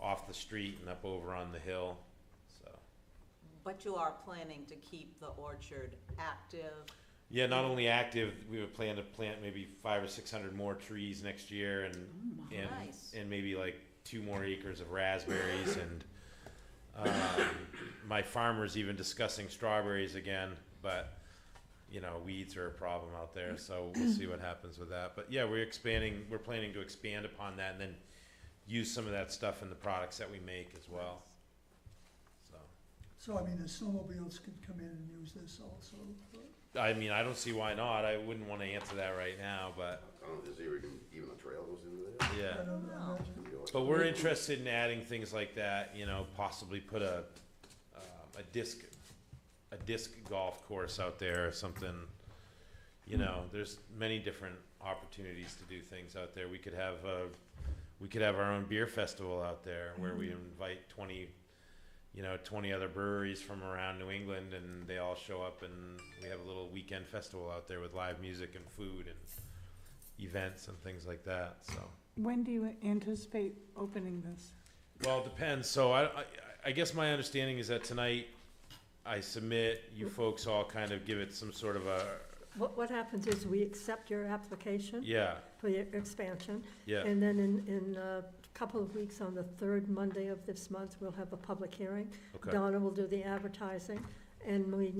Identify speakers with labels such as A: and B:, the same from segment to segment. A: off the street and up over on the hill, so.
B: But you are planning to keep the orchard active?
A: Yeah, not only active, we would plan to plant maybe five or six hundred more trees next year and, and,
B: Nice.
A: and maybe like two more acres of raspberries and, um, my farmer's even discussing strawberries again, but, you know, weeds are a problem out there, so we'll see what happens with that. But yeah, we're expanding, we're planning to expand upon that and then use some of that stuff in the products that we make as well, so.
C: So I mean, the snowmobiles could come in and use this also, but-
A: I mean, I don't see why not. I wouldn't want to answer that right now, but
D: I don't know, is there even, even a trail goes into there?
A: yeah.
C: I don't
B: Wow.
C: imagine.
D: You know,
A: But we're interested in adding things like that, you know, possibly put a, um, a disc, a disc golf course out there or something. You know, there's many different opportunities to do things out there. We could have a, we could have our own beer festival out there where we invite twenty, you know, twenty other breweries from around New England and they all show up and we have a little weekend festival out there with live music and food and events and things like that, so.
E: When do you anticipate opening this?
A: Well, it depends. So I, I, I guess my understanding is that tonight I submit, you folks all kind of give it some sort of a,
F: What, what happens is we accept your application
A: yeah,
F: for your expansion,
A: yeah,
F: and then in, in a couple of weeks, on the third Monday of this month, we'll have a public hearing.
A: okay,
F: Donna will do the advertising, and we,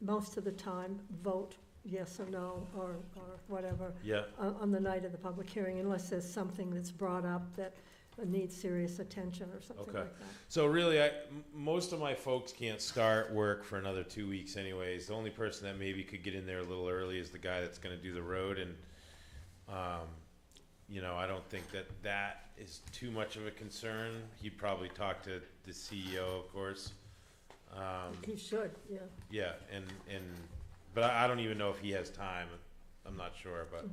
F: most of the time, vote yes or no, or, or whatever,
A: yeah,
F: on, on the night of the public hearing, unless there's something that's brought up that needs serious attention or something
A: Okay.
F: like that.
A: So really, I m most of my folks can't start work for another two weeks anyways. The only person that maybe could get in there a little early is the guy that's gonna do the road and, um, you know, I don't think that that is too much of a concern. He'd probably talk to the CEO, of course. Um,
F: He should, yeah.
A: Yeah, and, and, but I, I don't even know if he has time, I'm not sure, but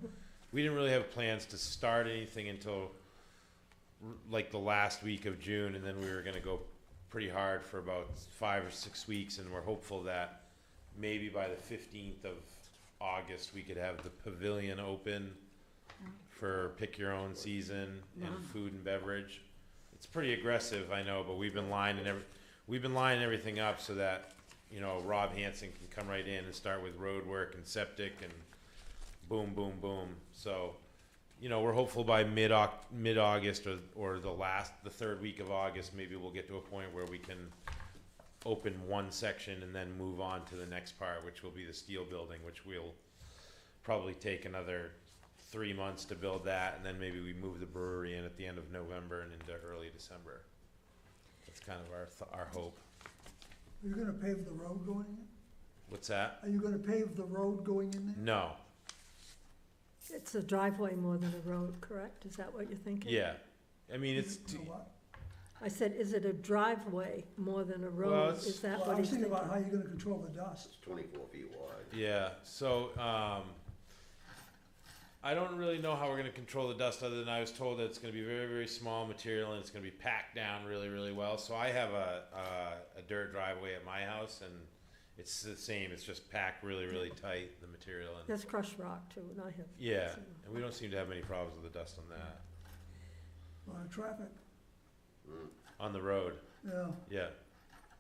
A: we didn't really have plans to start anything until r- like the last week of June, and then we were gonna go pretty hard for about five or six weeks, and we're hopeful that maybe by the fifteenth of August, we could have the pavilion open for pick your own season and food and beverage. It's pretty aggressive, I know, but we've been lining every, we've been lining everything up so that, you know, Rob Hanson can come right in and start with road work and septic and boom, boom, boom. So, you know, we're hopeful by mid mid August or or the last the third week of August, maybe we'll get to a point where we can open one section and then move on to the next part, which will be the steel building, which we'll probably take another three months to build that, and then maybe we move the brewery in at the end of November and into early December. That's kind of our th- our hope.
C: Are you gonna pave the road going in?
A: What's that?
C: Are you gonna pave the road going in there?
A: No,
F: It's a driveway more than a road, correct? Is that what you're thinking?
A: yeah, I mean it's.
C: You know what?
F: I said, is it a driveway more than a
A: Well,
F: road?
A: it's-
F: Is
C: Well,
F: that what
C: I'm
F: he's
C: thinking
F: thinking?
C: about how you're gonna control the dust.
D: It's twenty-four feet wide.
A: Yeah, so, um, I don't really know how we're gonna control the dust, other than I was told that it's gonna be very, very small material and it's gonna be packed down really, really well, so I have a, uh, a dirt driveway at my house and it's the same, it's just packed really, really tight, the material and,
F: There's crushed rock too, and I have.
A: yeah, and we don't seem to have any problems with the dust on that,
C: A lot of traffic,
D: Mm.
A: on the road,
C: yeah.
A: yeah.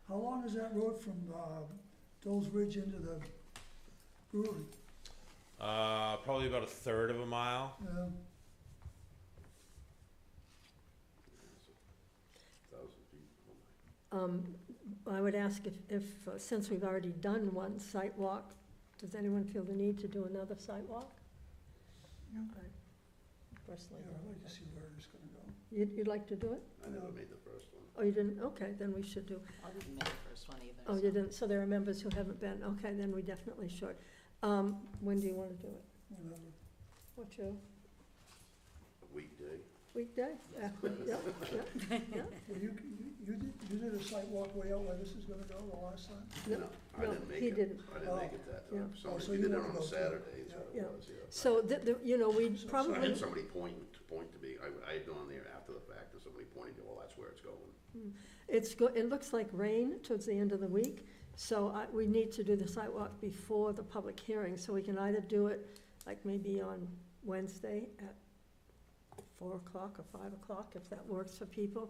C: How long is that road from, uh, Dole's Ridge into the brewery?
A: Uh, probably about a third of a mile,
C: Yeah,
D: Thousand feet. Oh my.
F: Um, I would ask if, if, uh, since we've already done one site walk, does anyone feel the need to do another site walk?
C: Yeah.
F: I
C: yeah,
F: Personally,
C: I'd like to see where it's gonna go.
F: you'd, you'd like to do it?
D: I never made the first one.
F: Oh, you didn't? Okay, then we should do.
B: I didn't make the first one either.
F: Oh,
B: so-
F: you didn't, so there are members who haven't been. Okay, then we definitely should. Um, when do you want to do it?
C: Whatever.
F: What's your
D: A weekday.
F: weekday?
B: Yes,
F: Yeah,
B: please.
F: yeah, yeah.
C: Well, you, you, you did, you did a site walk way out where this is gonna go the last time?
F: No,
D: No, I
F: no,
D: didn't make
F: he
D: it.
F: didn't.
D: I
C: Oh.
D: didn't make it that
F: Yeah.
D: time.
C: Oh, so
D: Somebody
C: you
D: did it
C: wanna
D: on
C: go
D: a
C: too.
D: Saturday, is
F: Yeah.
D: what it was, yeah.
F: So, the, the, you know,
C: So- so I
F: we
D: So I
F: probably,
D: had somebody point, point to me, I, I had gone there after the fact, and somebody pointed to, well, that's where it's going.
F: it's go, it looks like rain towards the end of the week, so I, we need to do the sidewalk before the public hearing, so we can either do it, like maybe on Wednesday at four o'clock or five o'clock, if that works for people,